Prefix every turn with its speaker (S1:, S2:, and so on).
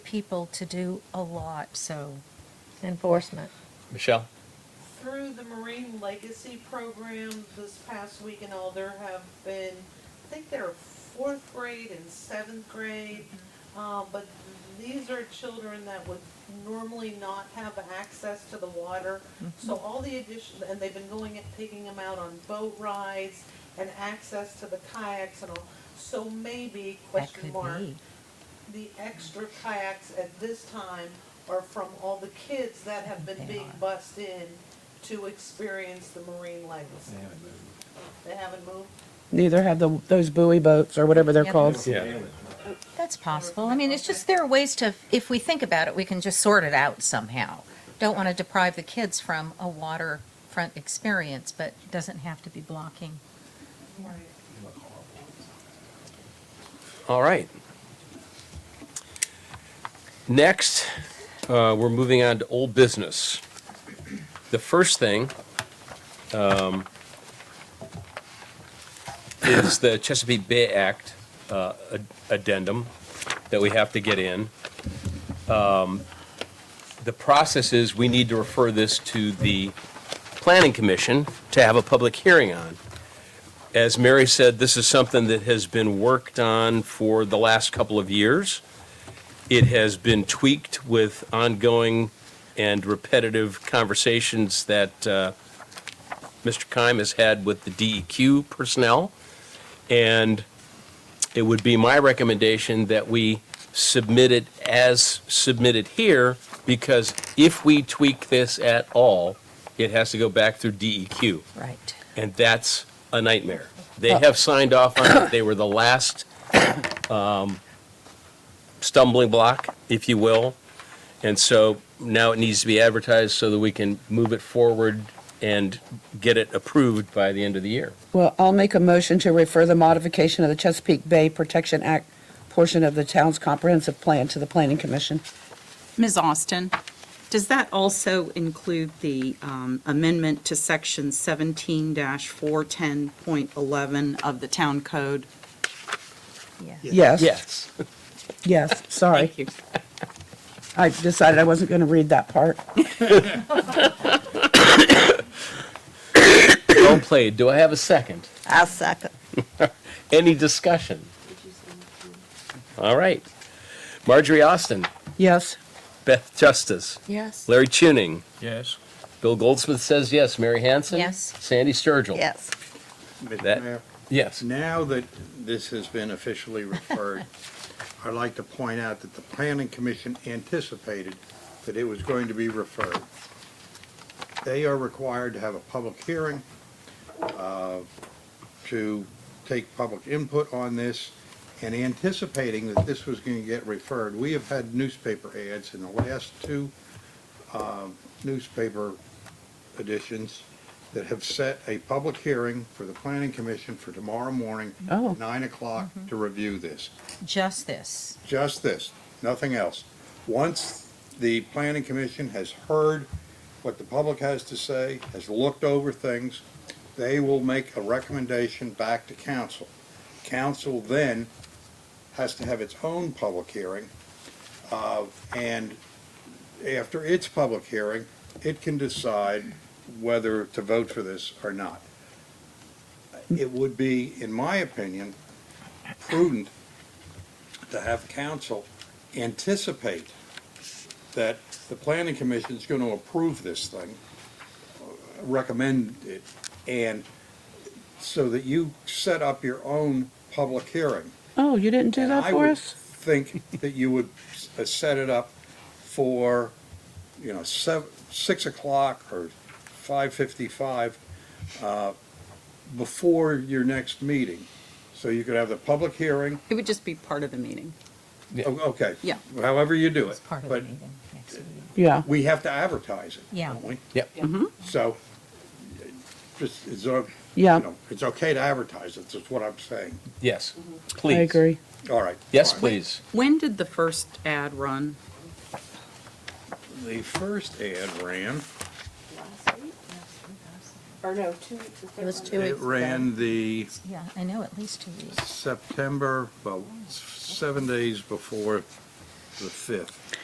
S1: people to do a lot, so enforcement.
S2: Michelle?
S3: Through the Marine Legacy Program this past week and all, there have been, I think there are fourth grade and seventh grade.
S1: Mm-hmm.
S3: Uh, but these are children that would normally not have access to the water.
S1: Mm-hmm.
S3: So all the addition, and they've been going and taking them out on boat rides and access to the kayaks and all. So maybe,
S1: That
S3: question
S1: could
S3: mark,
S1: be.
S3: the extra kayaks at this time are from all the kids that have been
S1: They
S3: being
S1: are.
S3: bused in to experience the marine legacy. They haven't moved?
S4: Neither have the, those buoy boats or whatever they're
S1: Yeah.
S4: called.
S2: Yeah.
S1: That's possible. I mean, it's just, there are ways to, if we think about it, we can just sort it out somehow. Don't want to deprive the kids from a waterfront experience, but it doesn't have to be blocking.
S3: Right.
S2: All right. Next, uh, we're moving on to old business. The first thing um, is the Chesapeake Bay Act uh, ad- addendum that we have to get in. Um, The process is, we need to refer this to the Planning Commission to have a public hearing on as Mary said, this is something that has been worked on for the last couple of years. It has been tweaked with ongoing and repetitive conversations that uh, Mr. Kime has had with the DEQ personnel. And it would be my recommendation that we submit it as submitted here, because if we tweak this at all, it has to go back through E DEQ.
S1: Right.
S2: And that's a nightmare. They have signed off on it. They were the last um, stumbling block, if you will. And so now it needs to be advertised so that we can move it forward and get it approved by the end of the year.
S4: Well, I'll make a motion to refer the modification of the Chesapeake Bay Protection Act portion of the town's comprehensive plan to the planning commission.
S5: Ms. Austin, does that also include the um, amendment to Section 17-410.11 of the Town Code?
S1: Yeah.
S4: Yes. Yes, sorry.
S5: Thank you.
S4: I decided I wasn't going to read that part.
S2: Well played. Do I have a second?
S6: I'll second.
S2: Any discussion? All right. Marjorie Austin,
S4: Yes.
S2: Beth Justice,
S1: Yes.
S2: Larry Tuning,
S7: Yes.
S2: Bill Goldsmith says yes. Mary Hanson?
S1: Yes.
S2: Sandy Sturgill?
S6: Yes.
S2: That-
S7: Mr. Mayor,
S2: Yes.
S7: now that this has been officially referred, I'd like to point out that the planning commission anticipated that it was going to be referred. They are required to have a public hearing, uh, to take public input on this, and anticipating that this was going to get referred, we have had newspaper ads in the last two um, newspaper editions that have set a public hearing for the planning commission for tomorrow morning,
S4: Oh.
S7: nine o'clock, to review this.
S1: Just this.
S7: Just this, nothing else. Once the planning commission has heard what the public has to say, has looked over things, they will make a recommendation back to council. Council then has to have its own public hearing, uh, and after its public hearing, it can decide whether to vote for this or not. It would be, in my opinion, prudent to have council anticipate that the planning commission is going to approve this thing, uh, recommend it, and so that you set up your own public hearing.
S4: Oh, you didn't do
S7: And
S4: that
S7: I
S4: for
S7: would
S4: us?
S7: Think that you would s- uh, set it up for, you know, seven, six o'clock or five fifty-five, uh, before your next meeting. So you could have the public hearing,
S5: It would just be part of the meeting.
S7: O- Oh, okay.
S5: Yeah.
S7: However you do it.
S1: It's part of the
S7: But
S1: meeting next meeting.
S4: Yeah.
S7: we have to advertise it,
S1: Yeah.
S7: don't we?
S2: Yep.
S7: So, uh, just, it's, o- you
S4: Yeah.
S7: know, it's okay to advertise it, that's what I'm saying.
S2: Yes,
S4: I
S2: please.
S4: agree.
S7: All right.
S2: Yes,
S7: fine.
S2: please.
S5: When did the first ad run?
S7: The first ad ran,
S8: Or no, two weeks.
S1: It was two
S7: it
S1: weeks.
S7: ran the
S1: Yeah, I know, at least two weeks.
S7: September, well, s- seven days before the fifth.